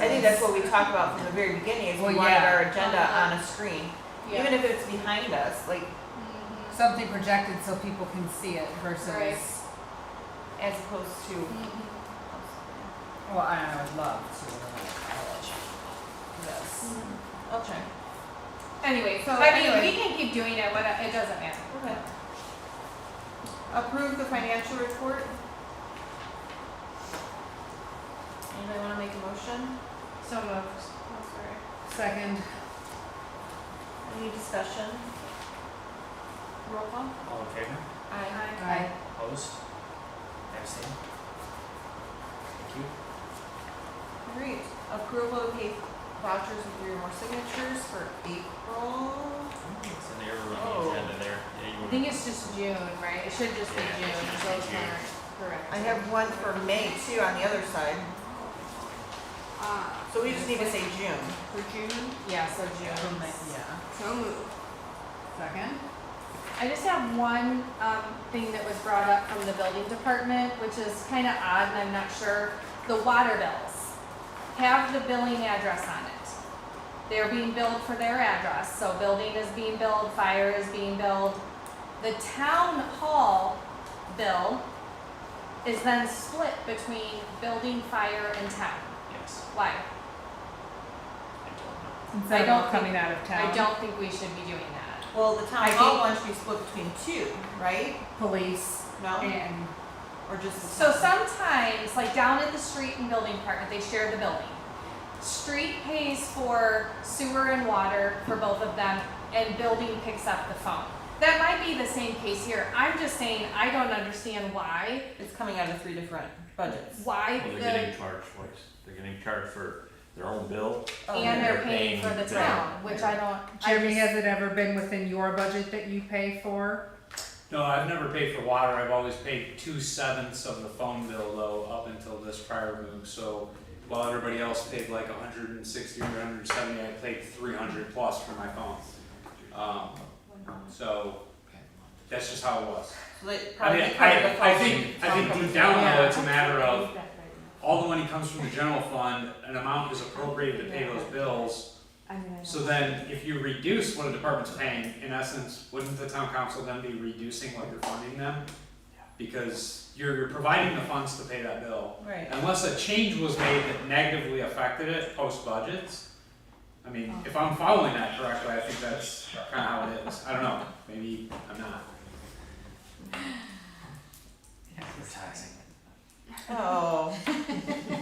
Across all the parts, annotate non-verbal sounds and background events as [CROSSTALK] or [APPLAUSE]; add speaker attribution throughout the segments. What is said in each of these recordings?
Speaker 1: I think that's what we talked about from the very beginning, is we
Speaker 2: Well,
Speaker 1: wanted
Speaker 2: yeah.
Speaker 1: our agenda
Speaker 3: Uh-huh.
Speaker 1: on a screen.
Speaker 3: Yeah.
Speaker 1: Even if it's behind us, like,
Speaker 3: Mhm.
Speaker 2: Something projected so people can see it
Speaker 3: Right.
Speaker 2: versus,
Speaker 1: as opposed to.
Speaker 3: Mhm.
Speaker 2: well, I don't know, I'd love to have a college. Yes.
Speaker 1: I'll try.
Speaker 3: Anyway, so
Speaker 1: But
Speaker 3: I mean,
Speaker 1: anyway.
Speaker 3: we can keep doing it, what, it doesn't matter.
Speaker 1: Okay. Approve the financial report. Anybody wanna make a motion?
Speaker 3: So moved. Oh, sorry.
Speaker 2: Second,
Speaker 1: Any discussion? Roll call?
Speaker 4: All in favor?
Speaker 1: Aye.
Speaker 2: I,
Speaker 4: Opposed? Abstained? Thank you.
Speaker 1: Alright, approval of pay vouchers with three or more signatures for April.
Speaker 4: It's an error on
Speaker 1: Oh.
Speaker 4: the agenda there. Yeah, you
Speaker 3: I
Speaker 4: would.
Speaker 3: think it's just June, right? It should just be
Speaker 4: Yeah, it
Speaker 3: June,
Speaker 4: should just
Speaker 3: so
Speaker 4: be
Speaker 3: it's
Speaker 4: June.
Speaker 3: not correct.
Speaker 1: I have one for May too on the other side,
Speaker 3: Uh,
Speaker 1: so we just need to say June.
Speaker 3: For June? Yeah, so June.
Speaker 2: yeah,
Speaker 3: So moved.
Speaker 2: second,
Speaker 3: I just have one um, thing that was brought up from the building department, which is kind of odd, and I'm not sure. The water bills have the billing address on it. They're being billed for their address, so building is being billed, fire is being billed. The town hall bill is then split between building, fire, and town.
Speaker 4: Yes,
Speaker 3: Why?
Speaker 4: I
Speaker 3: I
Speaker 4: don't
Speaker 2: instead
Speaker 3: don't
Speaker 2: of coming out of town.
Speaker 3: I don't think we should be doing that.
Speaker 1: Well, the town
Speaker 3: I
Speaker 1: hall
Speaker 3: think-
Speaker 1: one should be split between two, right?
Speaker 2: Police
Speaker 1: No,
Speaker 2: and,
Speaker 1: or just the.
Speaker 3: So
Speaker 1: town?
Speaker 3: sometimes, like down at the street and building department, they share the building. Street pays for sewer and water for both of them, and building picks up the phone. That might be the same case here. I'm just saying, I don't understand why,
Speaker 1: It's coming out of three different budgets.
Speaker 3: why
Speaker 4: know. Well, they're
Speaker 3: the,
Speaker 4: getting charged twice. They're getting charged for their own bill.
Speaker 3: and
Speaker 1: Um,
Speaker 3: they're paying for the
Speaker 4: They're paying
Speaker 3: town, which I don't, I
Speaker 2: Jeremy,
Speaker 3: just,
Speaker 2: has it ever been within your budget that you pay for?
Speaker 5: No, I've never paid for water, I've always paid two sevenths of the phone bill though, up until this prior move, so while everybody else paid like hundred and sixty or hundred and seventy, I paid three hundred plus for my phone. Um, so, that's just how it was.
Speaker 1: So they
Speaker 5: I
Speaker 1: probably
Speaker 5: mean,
Speaker 1: cover the
Speaker 5: I, I
Speaker 1: phone-
Speaker 5: think, I
Speaker 1: phone
Speaker 5: think
Speaker 1: company.
Speaker 5: deep down though,
Speaker 2: Yeah.
Speaker 5: it's a matter of, all the money comes from the general fund, an amount is appropriated to pay those bills. So then, if you reduce what a department's paying, in essence, wouldn't the town council then be reducing what you're funding them? Because you're, you're providing the funds to pay that bill,
Speaker 1: Right.
Speaker 5: unless a change was made that negatively affected it post budgets. I mean, if I'm following that correctly, I think that's kinda how it is, I don't know, maybe I'm not.
Speaker 4: We're taxing.
Speaker 1: Oh,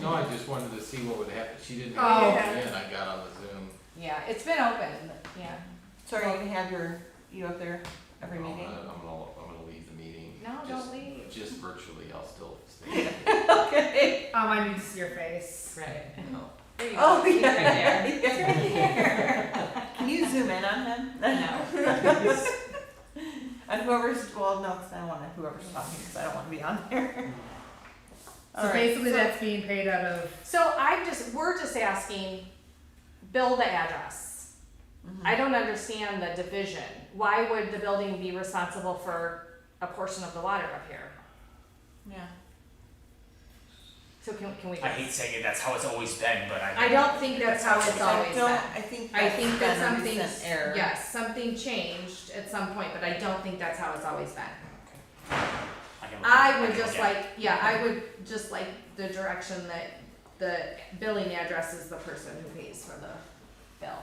Speaker 6: No, I just wanted to see what would happen. She didn't
Speaker 2: Oh.
Speaker 6: have it in. I got on the Zoom.
Speaker 3: yeah, it's been open, yeah.
Speaker 1: sorry, you can have your, you up there every
Speaker 6: I'm
Speaker 1: meeting?
Speaker 6: gonna, I'm gonna, I'm gonna leave the meeting.
Speaker 3: No, don't
Speaker 6: Just-
Speaker 3: leave.
Speaker 6: Just virtually, I'll still
Speaker 3: [LAUGHS]
Speaker 6: stay.
Speaker 1: Okay.
Speaker 2: Um, I need to see your face.
Speaker 6: Right. No.
Speaker 3: There you go.
Speaker 1: Oh,
Speaker 3: Keep it [LAUGHS]
Speaker 1: yeah. [LAUGHS]
Speaker 3: there.
Speaker 1: It's right here. [LAUGHS] Can you zoom in on him? [LAUGHS] On whoever's, well, no, 'cause I don't wanna, whoever's talking, cause I don't wanna be on there. [LAUGHS]
Speaker 2: So
Speaker 1: Alright,
Speaker 2: basically,
Speaker 1: so-
Speaker 2: that's being paid out of,
Speaker 3: So I'm just, we're just asking, bill the address.
Speaker 1: Mm-hmm.
Speaker 3: I don't understand the division. Why would the building be responsible for a portion of the water up here?
Speaker 1: Yeah.
Speaker 3: So can, can we?
Speaker 4: I hate saying it, that's how it's always been, but I.
Speaker 3: I don't think that's how it's
Speaker 1: I
Speaker 3: always
Speaker 1: don't,
Speaker 3: been.
Speaker 1: I think
Speaker 3: I
Speaker 1: that's
Speaker 3: think
Speaker 1: been
Speaker 3: that
Speaker 1: a
Speaker 3: something,
Speaker 1: recent error.
Speaker 3: yes, something changed at some point, but I don't think that's how it's always been.
Speaker 4: can look at it.
Speaker 3: I
Speaker 4: I
Speaker 3: would
Speaker 4: can
Speaker 3: just
Speaker 4: look at it.
Speaker 3: like, yeah, I would just like the direction that the billing address is the person who pays for the bill.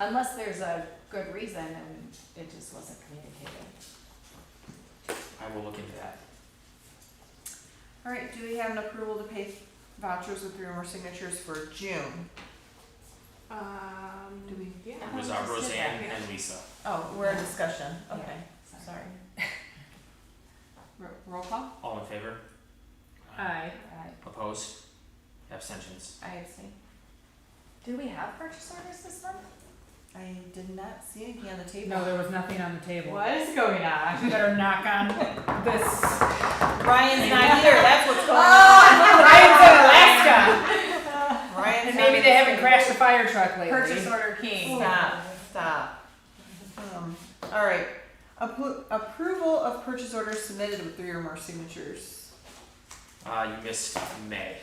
Speaker 3: Unless there's a good reason and it just wasn't communicated.
Speaker 4: I will look into that.
Speaker 1: Alright, do we have an approval to pay vouchers with three or more signatures for June?
Speaker 3: Um.
Speaker 1: Do we-
Speaker 3: Yeah.
Speaker 4: It was our Roseanne and Lisa.
Speaker 1: Oh, we're in discussion, okay,
Speaker 3: Sorry.
Speaker 1: sorry. Roll call?
Speaker 4: All in favor?
Speaker 3: Uh.
Speaker 2: aye.
Speaker 3: Alright.
Speaker 4: Opposed? Abstentions?
Speaker 1: I abstain.
Speaker 3: Do we have purchase orders this month?
Speaker 1: I did not see anything on the table.
Speaker 2: No, there was nothing on the table.
Speaker 1: What is going on?
Speaker 2: You better knock on this.
Speaker 1: Ryan's [LAUGHS] not here. That's what's going
Speaker 2: Oh,
Speaker 1: on.
Speaker 2: Ryan's in Alaska,
Speaker 1: Ryan's
Speaker 2: and
Speaker 1: not
Speaker 2: maybe they
Speaker 1: here.
Speaker 2: haven't crashed a fire truck lately.
Speaker 3: Purchase order king.
Speaker 1: Stop. Stop. Um, all right. Appro- approval of purchase orders submitted with three or more signatures.
Speaker 4: Uh, you missed May.